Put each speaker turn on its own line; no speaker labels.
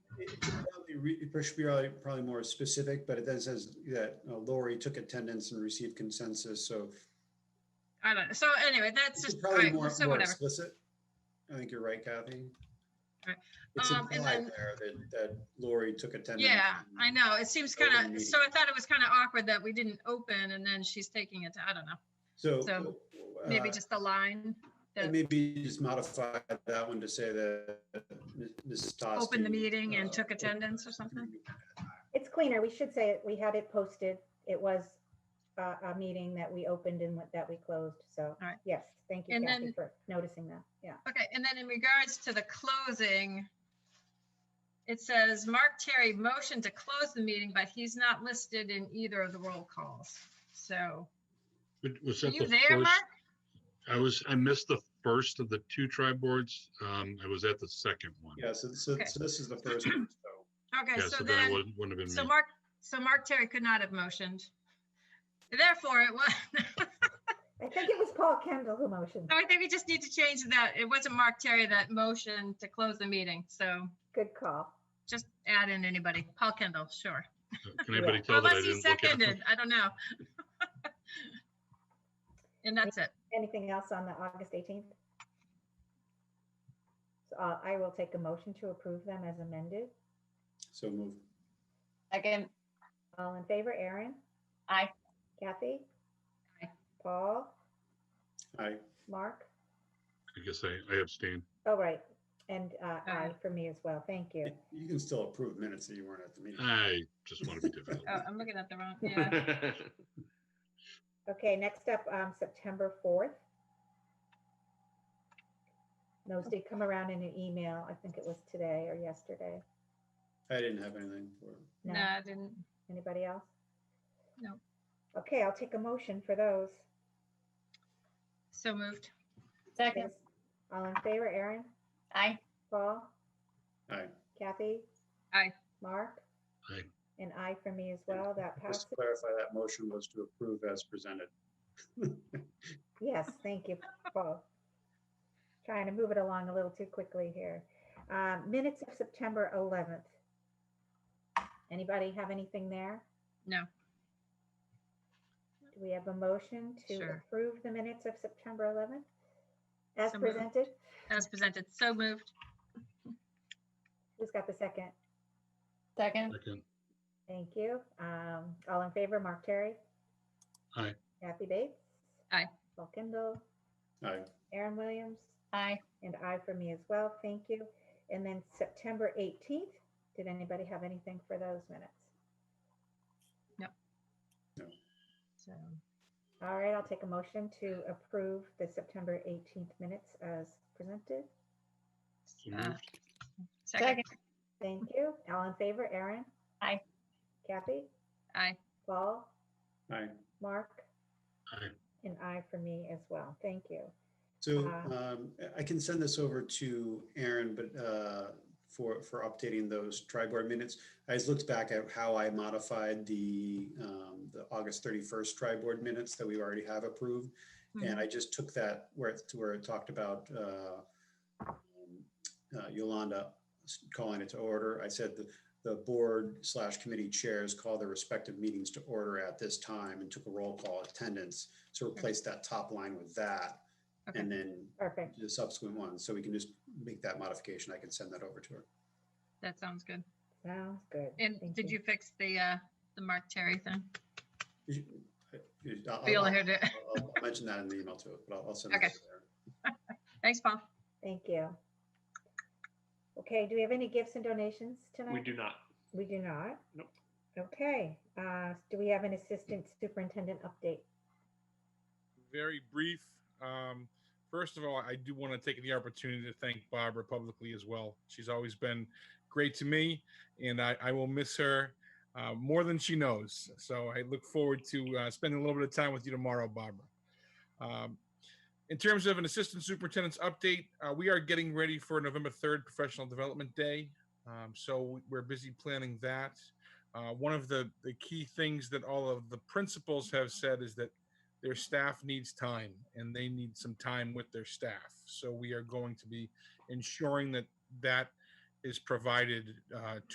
re- it should be probably, probably more specific, but it then says that uh, Lori took attendance and received consensus, so
I don't, know. so anyway, that's
it's
just, all
probably
right,
more,
so
more
whatever.
explicit. I think you're right, Kathy.
Right.
It's
Um, and
implied
then-
there that, that Lori took attendance.
Yeah, I know. It seems
Open
kind
meeting.
of, so I thought it was kind of awkward that we didn't open and then she's taking it to, I don't know,
So.
so
uh,
maybe just the line,
And maybe just modify that one to say that Mrs. Toski.
opened the meeting and
uh,
took attendance or something.
It's cleaner. We should say it. We had it posted. It was a, a meeting that we opened and what- that we closed. So,
right.
yes, thank you
And
Kathy
then-
for noticing that. Yeah.
Okay, and then in regards to the closing, it says Mark Terry motioned to close the meeting, but he's not listed in either of the roll calls. So,
But Was
are
that
you
the
there,
first?
Mark?
I was, I missed the first of the two tri boards. Um, I was at the second one.
Yeah, so, so
Okay.
so this is the first one, so.
Okay,
Yeah,
so
so then it
then,
wouldn't, wouldn't have
so
been me.
Mark, so Mark Terry could not have motioned. Therefore, it was,
I think it was Paul Kendall who motioned.
I think we just need to change that. It wasn't Mark Terry that motioned to close the meeting. So
Good call.
just add in anybody. Paul Kendall, sure.
Uh, Can anybody
Yeah.
tell that I
Unless he
didn't look at them?
seconded, I don't know. And that's it.
Anything else on the August 18th? So uh, I will take a motion to approve them as amended.
So move.
Second,
All in favor, Aaron?
Aye.
Kathy?
Aye.
Paul?
Aye.
Mark?
I guess I, I abstain.
Oh, right. And uh, aye
Aye.
for me as well. Thank you.
You can still approve minutes that you weren't at the meeting.
I just want to be difficult.
Oh, I'm looking at the wrong, yeah.
Okay, next up, um, September fourth. Those did come around in an email. I think it was today or yesterday.
I didn't have anything for,
No,
No,
I didn't.
anybody else?
No.
Okay, I'll take a motion for those.
So moved.
second,
All in favor, Aaron,
aye,
Paul,
aye.
Kathy?
Aye.
Mark?
Aye.
And I for me as well. That passes.
Just to clarify, that motion was to approve as presented.
Yes, thank you, Paul. Trying to move it along a little too quickly here. Um, Minutes of September 11th. Anybody have anything there?
No.
Do we have a motion to
Sure.
approve the minutes of September 11th? As
So moved.
presented?
As presented. So moved.
Who's got the second?
second,
Second.
Thank you. Um, All in favor, Mark Terry?
Aye.
Kathy Bates?
Aye.
Paul Kindle?
Aye.
Aaron Williams?
aye,
And I for me as well, thank you. And then September 18th, did anybody have anything for those minutes?
So
All right, I'll take a motion to approve the September 18th minutes as presented.
So
uh,
moved.
Second.
Thank you. All in favor, Aaron?
Aye.
Kathy?
Aye.
Paul?
Aye.
Mark?
Aye.
And I for me as well, thank you.
So
Uh,
um, I can send this over to Aaron, but uh, for, for updating those tri board minutes. I just looked back at how I modified the, um, the August 31st tri board minutes that we already have approved. And I just took that where it's to where it talked about uh, um, uh, Yolanda s- calling it to order. I said the, the board slash committee chairs call their respective meetings to order at this time and took a roll call attendance. So replace that top line with that.
Okay.
And then
Perfect.
the subsequent ones, so we can just make that modification. I can send that over to her.
That sounds good.
Sounds good.
And
Thank
did you fix the, uh, the Mark Terry thing?
I'll-
Be able to
I'll-
hear it.
I'll I'll mention that in the email too, but I'll I'll send it
Okay.
over to her.
Thanks, Paul.
Thank you. Okay, do we have any gifts and donations tonight?
We do not.
We do not?
Nope.
Okay, uh, do we have an assistant superintendent update?
very brief. Um, first of all, I do want to take the opportunity to thank Barbara publicly as well. She's always been great to me, and I, I will miss her uh, more than she knows. So I look forward to uh, spending a little bit of time with you tomorrow, Barbara. Um, in terms of an assistant superintendent's update, uh, we are getting ready for November 3rd Professional Development Day. Um, so we're busy planning that. Uh, one of the, the key things that all of the principals have said is that their staff needs time and they need some time with their staff. So we are going to be ensuring that that is provided uh,